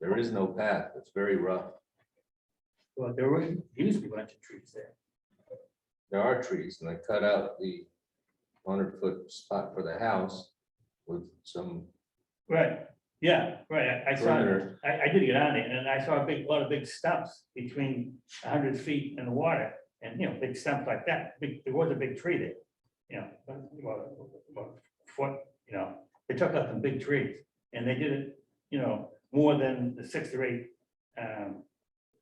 There is no path. It's very rough. Well, there were, used to be a bunch of trees there. There are trees and I cut out the hundred foot spot for the house with some, Right, yeah, right, I I saw, Perimeter. I, I did get on it, and I saw a big, a lot of big stumps between a hundred feet and the water, and, you know, big stumps like that, big, there was a big tree there. You know, about, about foot, you know, they took out some big trees, and they did it, you know, more than the six or eight, um,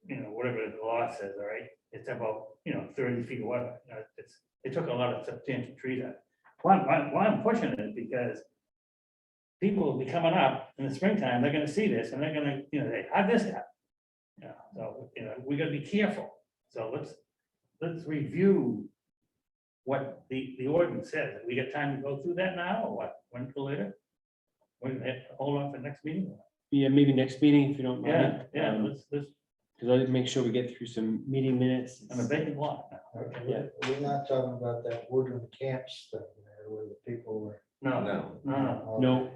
you know, whatever the law says, all right, it's about, you know, thirty feet or whatever, you know, it's, they took a lot of substantial trees out. Why, why, why I'm pushing it is because people will be coming up in the springtime, they're gonna see this, and they're gonna, you know, they, how'd this happen? You know, so, you know, we gotta be careful, so let's, let's review what the, the ordinance says, we got time to go through that now, or what, when till later? We're gonna have to hold on for next meeting? Yeah, maybe next meeting if you don't Yeah, mind. yeah, let's, let's, Because I'll make sure we get through some meeting minutes. on a vacant lot. Yeah. We're not talking about that woodland camps thing there where the people were. uh, No, no, no, no, No,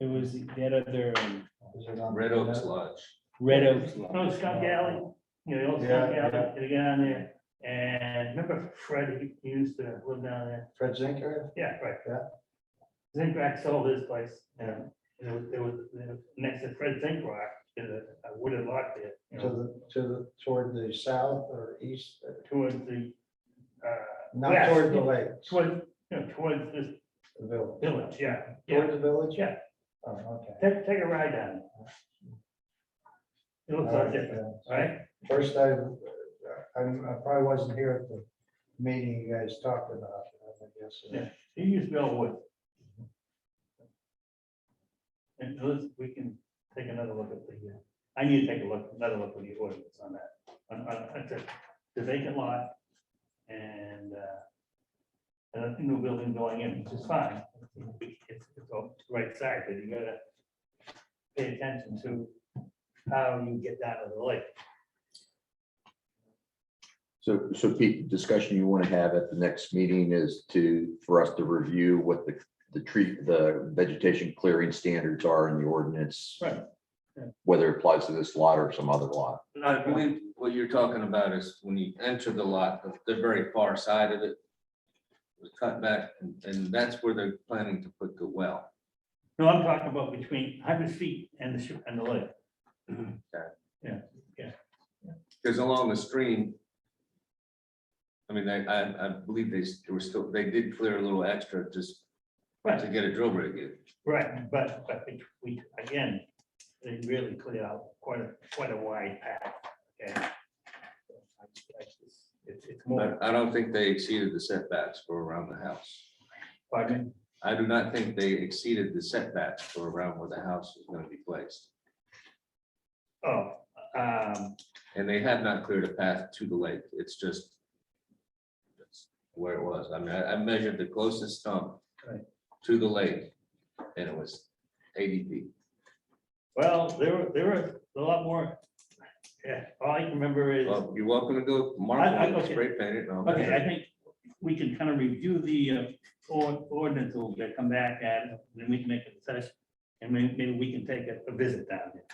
it was that other um, Was it on- Red Oaks Lodge. Red Oaks. no, lot. Scott Galley, you know, the old Yeah, Scott Galley, you get on there, and remember Fred, he he used to live down there? Fred Zinker, Yeah, right. Yeah. Zinkrack sold his place, you know, and it was, it was, you know, next to Fred Zinkrock, there's a a wooden lot there, you to know, the, to the, toward the south or east, uh, towards the, uh. not west, toward the lake, Towards, you know, towards this the village. village, yeah, yeah, Toward the village? yeah, Oh, okay. take, take a ride down. It looks like it, All right, right? yeah. First, I, I I probably wasn't here at the meeting you guys talked about, I guess. Yeah. He used Bell Wood. And let's, we can take another look at the, uh, I need to take a look, another look at the ordinance on that, on, on, on the- the vacant lot and, uh, and a new building going in, which is fine. It's, it's all right side, but you gotta pay attention to how you get down to the lake. So, so Pete, the discussion you want to have at the next meeting is to, for us to review what the, the tree, the vegetation clearing standards are in the ordinance. Right, yeah. Whether it applies to this lot or some other lot. I believe what you're talking about is when you enter the lot, the- the very far side of it was cut back and, and that's where they're planning to put the well. No, I'm talking about between hundred feet and the, sh- and the lake. Because along the stream, I mean, I, I, I believe they s- they were still, they did clear a little extra just Right. to get a drill rig in. Right, but, but we- we, again, they really clear out quite a, quite a wide path, okay? It's, it's more, But I don't think they exceeded the setbacks for around the house. pardon, I do not think they exceeded the setbacks for around where the house is gonna be placed. me. oh, um, And they have not cleared a path to the lake. It's just that's where it was. I mean, I, I measured the closest stump Right. to the lake and it was eighty feet. well, there were, there were a lot more. Yeah, all I can remember is, Well, you're welcome to go mark I- I- it, okay. spray paint it. and all that. okay, I think we can kind of review the uh, or- ordinance a little bit, come back at, it, then we can make a session. And maybe, maybe we can take a a visit down there.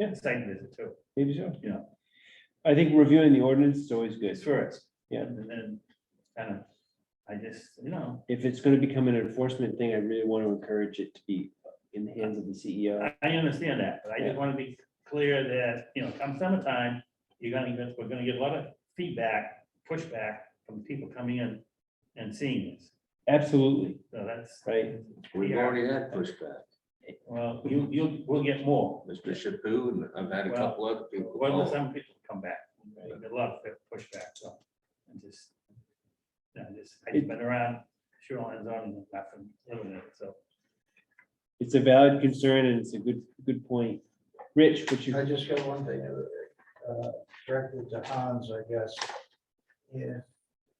Yeah, site visit too. Maybe so. Yeah. I think reviewing the ordinance is always good. It's first. Yeah. And then, kind of, I just, you know, If it's going to become an enforcement thing, I really want to encourage it to be in the hands of the E CEO. I, I understand that, but I just want to be clear that, you know, come summertime, you're gonna get, we're gonna get a lot of feedback, pushback from people coming in and seeing this. Absolutely, So that's, right? We've already had pushback, well, you, you, we'll get more. Mr. Chapu, and I've had a Well, couple other people. Whether call. some people come back, there'll be a lot of pushback, so, and just. I just, I've been around shoreline zoning, I've been living it, so. It's a valid concern and it's a good, good point. Rich, what you, I just got one thing, uh, directed to Hans, I guess. Yeah,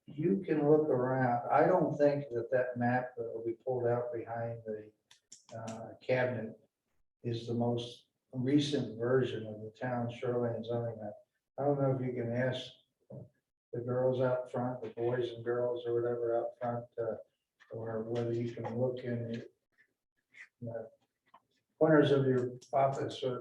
you can look around. I don't think that that map that will be pulled out behind the uh, cabinet is the most recent version of the town shoreline zoning map. I don't know if you can ask the girls out front, the boys and girls or whatever out front, uh, or whether you can look in the corners of uh, your office or